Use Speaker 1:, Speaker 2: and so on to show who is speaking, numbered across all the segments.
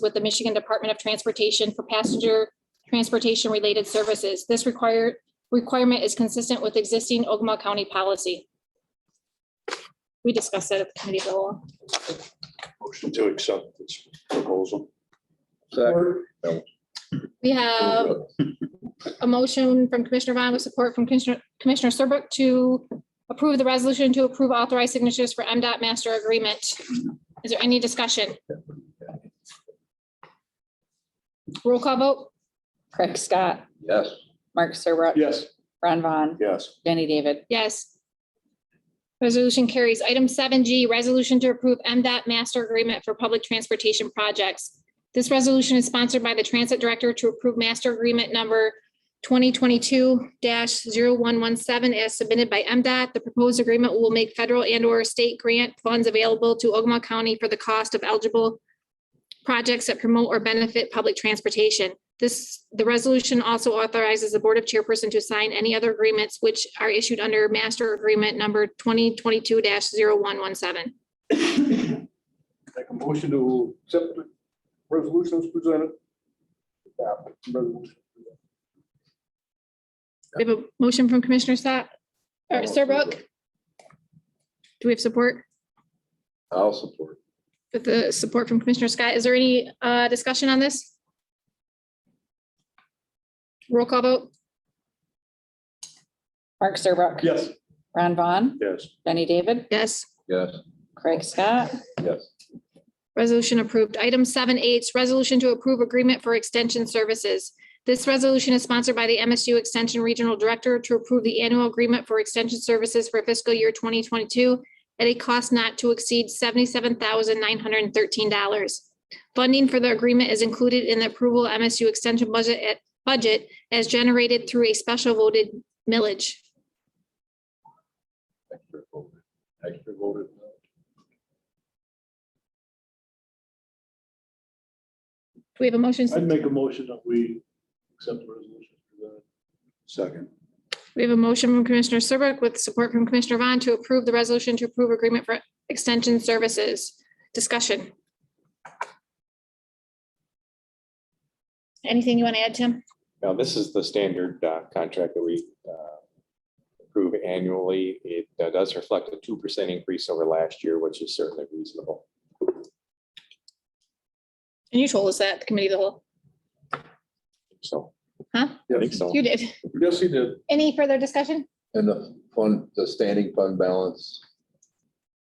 Speaker 1: with the Michigan Department of Transportation for passenger transportation related services. This required requirement is consistent with existing Ogama County policy. We discussed that at the committee of the whole.
Speaker 2: Motion to accept this proposal.
Speaker 1: We have a motion from Commissioner Vaughn with support from Commissioner Commissioner Serbrook to approve the resolution to approve authorized signatures for MDOT master agreement. Is there any discussion? Roll call vote?
Speaker 3: Craig Scott,
Speaker 2: Yes.
Speaker 3: Mark Serbrook.
Speaker 2: Yes.
Speaker 3: Ron Vaughn,
Speaker 2: Yes.
Speaker 3: Jenny David.
Speaker 1: Yes. Resolution carries. Item seven G, resolution to approve MDOT master agreement for public transportation projects. This resolution is sponsored by the Transit Director to approve master agreement number twenty twenty-two 117 as submitted by MDOT. The proposed agreement will make federal and or state grant funds available to Ogama County for the cost of eligible projects that promote or benefit public transportation. This, the resolution also authorizes the Board of Chairperson to sign any other agreements which are issued under master agreement number twenty twenty-two 117
Speaker 4: Make a motion to accept the resolutions presented. Adopt the resolution.
Speaker 1: We have a motion from Commissioner Scott, or
Speaker 5: Oh.
Speaker 1: Serbrook. Do we have support?
Speaker 2: I'll support.
Speaker 1: With the support from Commissioner Scott, is there any uh, discussion on this? Roll call vote?
Speaker 3: Mark Serbrook.
Speaker 4: Yes.
Speaker 3: Ron Vaughn,
Speaker 2: Yes.
Speaker 3: Jenny David,
Speaker 1: Yes.
Speaker 2: Yes.
Speaker 3: Craig Scott,
Speaker 2: Yes.
Speaker 1: Resolution approved. Item seven H, resolution to approve agreement for extension services. This resolution is sponsored by the MSU Extension Regional Director to approve the annual agreement for extension services for fiscal year twenty twenty-two at a cost not to exceed seventy-seven thousand nine hundred and thirteen dollars. Funding for the agreement is included in the approval MSU extension budget at budget as generated through a special voted millage.
Speaker 2: Extra voted. Extra voted.
Speaker 1: Do we have a motion?
Speaker 4: I'd make a motion that we accept the resolution presented.
Speaker 2: Second.
Speaker 1: We have a motion from Commissioner Serbrook with support from Commissioner Vaughn to approve the resolution to approve agreement for extension services. Discussion. Anything you want to add, Tim?
Speaker 6: Now, this is the standard uh, contract that we uh, approve annually. It uh, does reflect a two percent increase over last year, which is certainly reasonable.
Speaker 1: And you told us that, at the committee of the whole.
Speaker 6: So.
Speaker 1: Huh?
Speaker 6: I think so.
Speaker 1: You did.
Speaker 4: Yes, he did.
Speaker 1: Any further discussion?
Speaker 5: And the fund, the standing fund balance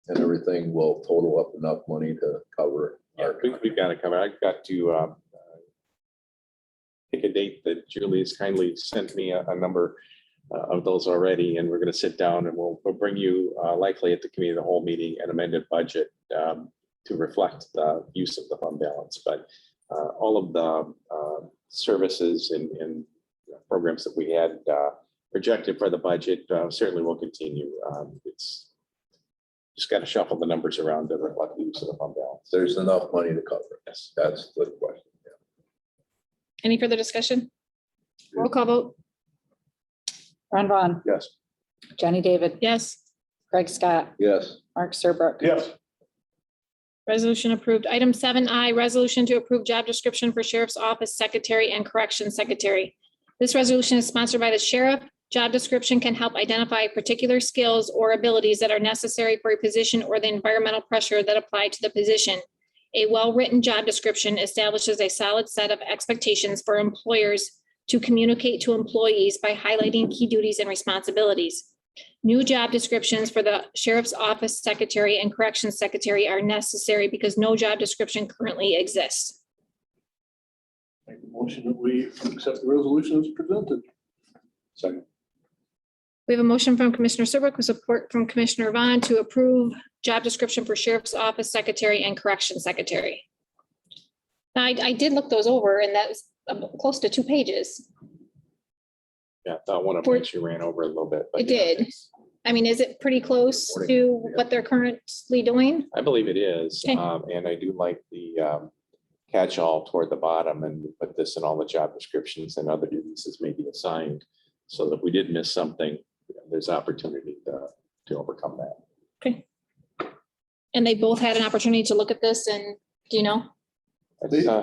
Speaker 5: and everything will total up enough money to cover.
Speaker 6: Yeah,
Speaker 5: our
Speaker 6: we- We've got to cover. I've got to um, uh, pick a date that Julie has kindly sent me a a number uh, of those already, and we're going to sit down and we'll, we'll bring you uh, likely at the committee of the whole meeting an amended budget um, to reflect the use of the fund balance. But uh, all of the uh, services and, and programs that we had uh, projected for the budget uh, certainly will continue. Um, It's just got to shuffle the numbers around to reflect the use of the fund balance.
Speaker 5: There's enough money to cover. it.
Speaker 6: Yes.
Speaker 5: That's the question.
Speaker 1: Any further discussion? Roll call vote.
Speaker 3: Ron Vaughn,
Speaker 2: Yes.
Speaker 3: Jenny David,
Speaker 1: Yes.
Speaker 3: Craig Scott,
Speaker 5: Yes,
Speaker 3: Mark Serbrook.
Speaker 4: Yes.
Speaker 1: Resolution approved. Item seven I, resolution to approve job description for Sheriff's Office Secretary and Corrections Secretary. This resolution is sponsored by the sheriff. Job description can help identify particular skills or abilities that are necessary for a position or the environmental pressure that apply to the position. A well-written job description establishes a solid set of expectations for employers to communicate to employees by highlighting key duties and responsibilities. New job descriptions for the sheriff's office secretary and corrections secretary are necessary because no job description currently exists.
Speaker 4: Make a motion that we accept the resolution as presented.
Speaker 2: Second.
Speaker 1: We have a motion from Commissioner Serbrook with support from Commissioner Vaughn to approve job description for sheriff's office secretary and corrections secretary. Now, I, I did look those over and that's um, close to two pages.
Speaker 6: Yeah, that one of
Speaker 1: For-
Speaker 6: which you ran over a little bit. but
Speaker 1: It
Speaker 6: yeah,
Speaker 1: did.
Speaker 6: it's-
Speaker 1: I mean, is it pretty close to what they're currently doing?
Speaker 6: I believe it is,
Speaker 1: Okay.
Speaker 6: um, and I do like the, um, catch-all toward the bottom and put this in all the job descriptions and other duties as may be assigned. So that if we did miss something, there's opportunity to, to overcome that.
Speaker 1: And they both had an opportunity to look at this and, do you know?
Speaker 6: That's, uh,